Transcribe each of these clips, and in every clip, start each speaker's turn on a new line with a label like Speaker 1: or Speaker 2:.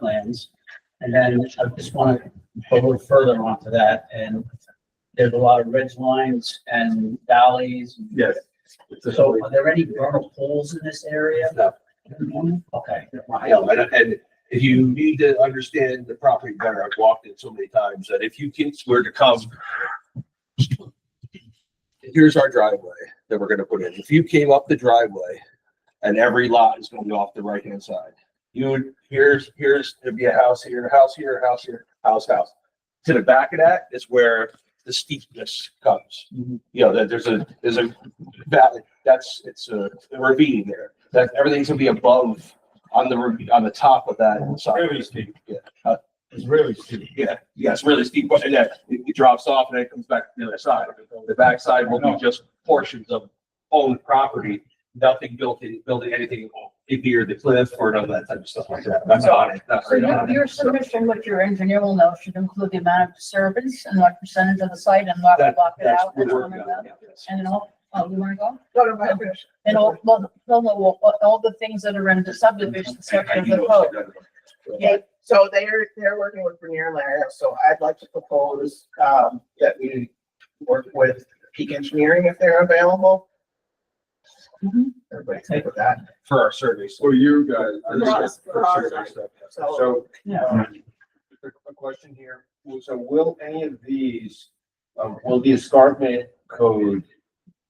Speaker 1: wetlands. And then I just want to go a little further onto that and there's a lot of ridge lines and valleys.
Speaker 2: Yes.
Speaker 1: So are there any vernal pools in this area?
Speaker 3: No.
Speaker 1: Okay.
Speaker 3: No, and, and if you need to understand the property better, I've walked it so many times that if you kids were to come. Here's our driveway that we're gonna put in. If you came up the driveway and every lot is gonna be off the right hand side. You would, here's, here's, there'd be a house here, a house here, a house here, house, house. To the back of that is where the steepness comes.
Speaker 1: Mhm.
Speaker 3: You know, that there's a, there's a valley, that's, it's a ravine there. That, everything's gonna be above on the, re- on the top of that side.
Speaker 2: Really steep.
Speaker 3: Yeah. Uh,
Speaker 2: It's really steep.
Speaker 3: Yeah, yeah, it's really steep, but then it it drops off and then it comes back to the other side. The backside will be just portions of owned property, nothing built in, building anything in near the cliff or none of that type of stuff like that. That's on it, that's
Speaker 4: So
Speaker 3: right
Speaker 4: your,
Speaker 3: on it.
Speaker 4: your submission, which your engineer will know, should include the amount of disturbance and what percentage of the site and what will
Speaker 3: That-
Speaker 4: block it
Speaker 3: that's
Speaker 4: out.
Speaker 3: what
Speaker 4: that's
Speaker 3: we're
Speaker 4: what I'm
Speaker 3: working on,
Speaker 4: about.
Speaker 3: yeah, yes.
Speaker 4: And then all, oh, you wanna go?
Speaker 5: No, no, I finished.
Speaker 4: And all, well, no, no, all, all the things that are in the subdivision section
Speaker 3: I
Speaker 4: of
Speaker 3: do
Speaker 4: the
Speaker 3: know
Speaker 4: code.
Speaker 3: it's-
Speaker 5: Okay, so they're, they're working with Bernier Larry, so I'd like to propose, um, that we work with Peak Engineering if they're available.
Speaker 4: Mhm.
Speaker 5: Everybody's good with that.
Speaker 3: For our surveys.
Speaker 2: For you guys.
Speaker 3: Our
Speaker 2: this
Speaker 3: surveys,
Speaker 2: is-
Speaker 3: for our survey stuff, yes.
Speaker 5: So,
Speaker 2: So, um, a a question here. So will any of these, um, will the escarpment code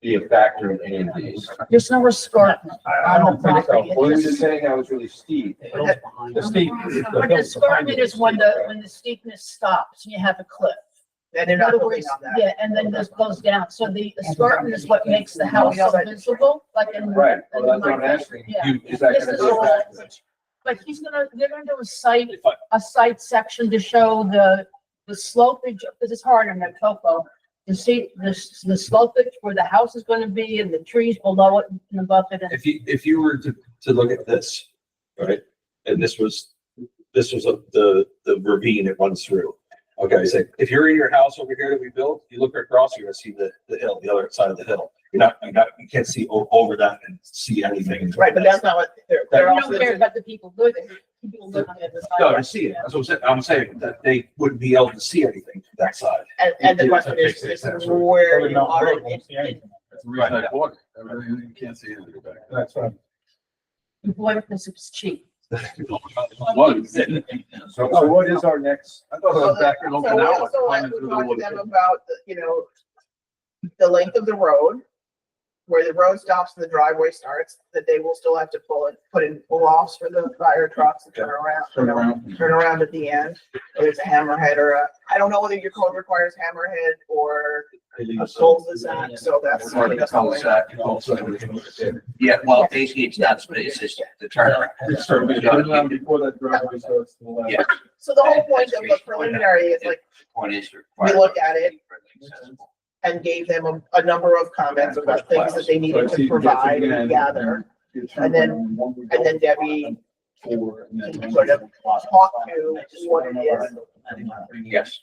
Speaker 2: be a factor in any of these?
Speaker 4: There's no escarpment.
Speaker 2: I, I don't think so. Well, you're just saying that was really steep.
Speaker 1: It goes behind.
Speaker 2: The steep.
Speaker 4: But the escarpment is when the, when the steepness stops and you have a cliff.
Speaker 5: And they're
Speaker 4: In
Speaker 5: not
Speaker 4: other
Speaker 5: moving
Speaker 4: words,
Speaker 5: on that.
Speaker 4: yeah, and then this goes down. So the escarpment is what makes the house so visible, like in.
Speaker 2: Right, well, that's what I'm asking.
Speaker 4: Yeah.
Speaker 3: You-
Speaker 2: Is that
Speaker 4: This
Speaker 2: gonna
Speaker 4: is
Speaker 2: be a
Speaker 4: all-
Speaker 2: factor?
Speaker 4: But he's gonna, they're gonna do a site,
Speaker 3: If I-
Speaker 4: a site section to show the, the slopage, because it's hard on the topo. To see the, s- the slopage where the house is gonna be and the trees below it and above it. and-
Speaker 3: If you, if you were to, to look at this, right, and this was, this was a- the, the ravine it runs through. Okay, so if you're in your house over here that we built, you look across, you're gonna see the, the hill, the other side of the hill. You're not, you're not, you can't see o- over that and see anything.
Speaker 5: Right, but that's not what they're,
Speaker 4: We
Speaker 5: they're
Speaker 4: don't
Speaker 5: also,
Speaker 4: care about the people who live there. People live on the other side.
Speaker 3: No, I see it. That's what I'm saying. I'm saying that they wouldn't be able to see anything from that side.
Speaker 5: and, and the question is, is where you are. in- in-
Speaker 2: That's the reason I bought it. I really- you can't see anything back. That's right.
Speaker 4: The boy, because it's cheap.
Speaker 2: So, so what is our next? I thought
Speaker 5: So that-
Speaker 2: in
Speaker 5: so we also like to talk to them about, the, you know, the length of the road, where the road stops and the driveway starts, that they will still have to pull it, put in pull-offs for the fire trucks to turn around.
Speaker 2: Turn around.
Speaker 5: Turn around at the end, if it's a hammerhead or a, I don't know whether your code requires hammerhead or a cul-de-sac, so that's.
Speaker 3: Or the cul-de-sac, you know, so everything was there. Yeah, well, basically it's not, it's just the turnaround.
Speaker 2: It's sort of- turn around Before that driveway starts to the left.
Speaker 3: Yeah.
Speaker 5: So the whole point of the preliminary is like,
Speaker 3: Point is.
Speaker 5: We look at it. and gave them a, a number of comments about things that they needed to provide and gather. And then- And then Debbie can sort of talk to what it is.
Speaker 3: Yes.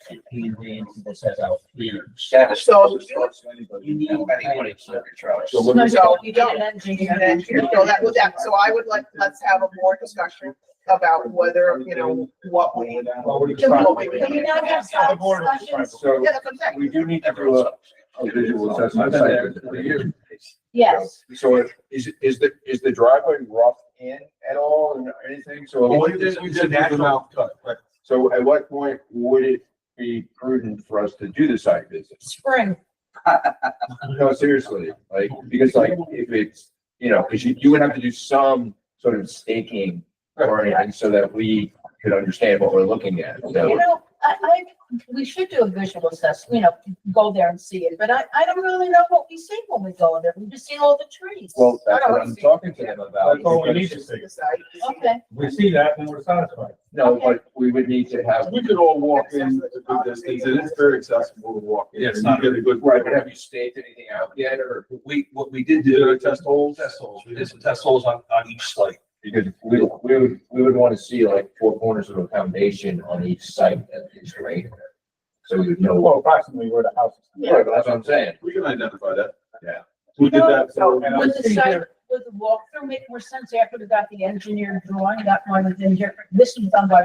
Speaker 1: That says out here.
Speaker 5: So-
Speaker 1: You need-
Speaker 2: So what
Speaker 4: No,
Speaker 2: is-
Speaker 5: So
Speaker 4: you
Speaker 5: you
Speaker 4: get
Speaker 5: don't.
Speaker 4: an engineer.
Speaker 5: And then, so that was that, so I would like, let's have a more discussion about whether, you know, what we.
Speaker 2: Well, we
Speaker 5: Can we-
Speaker 4: Can we not have side discussions?
Speaker 2: So
Speaker 5: Yeah, that's what I'm saying.
Speaker 2: we do need to do a a visual assessment. I've been there for years.
Speaker 4: Yes.
Speaker 2: So if- is, is the, is the driveway rough in at all and anything? So.
Speaker 3: Well, we did- we did natural-
Speaker 2: Mouth cut, right. So at what point would it be prudent for us to do the site visit?
Speaker 4: Spring.
Speaker 2: No, seriously, like, because like, if it's, you know, because you, you would have to do some sort of staking or anything so that we could understand what we're looking at.
Speaker 4: You
Speaker 2: So,
Speaker 4: know, I, I, we should do a visual assessment, you know, go there and see it, but I, I don't really know what we see when we go there. We just see all the trees.
Speaker 2: well, that's what I'm talking to them about.
Speaker 6: That's all we need to
Speaker 2: because-
Speaker 6: see.
Speaker 4: Okay,
Speaker 6: We see that and we're satisfied.
Speaker 2: No, but we would need to have.
Speaker 6: We could all
Speaker 5: walk in a good distance, and it's very
Speaker 6: accessible to walk
Speaker 3: in.
Speaker 6: It's not really good.
Speaker 2: Right, but have you staked anything out yet or?
Speaker 3: We, what we did do. test holes? Test holes. We did some test holes on, on each site.
Speaker 2: Because we, we would, we would want to see like four corners of a foundation on each site at least, right? So we would know.
Speaker 6: Well, approximately where the house is.
Speaker 2: Right, but That's what I'm saying.
Speaker 6: We can identify that.
Speaker 2: Yeah.
Speaker 6: We did that.
Speaker 5: So-
Speaker 6: and I'm
Speaker 4: with the
Speaker 6: sitting
Speaker 4: site,
Speaker 6: here-
Speaker 4: would the walkthrough make more sense after we got the engineered drawing, that one was in here, this was done by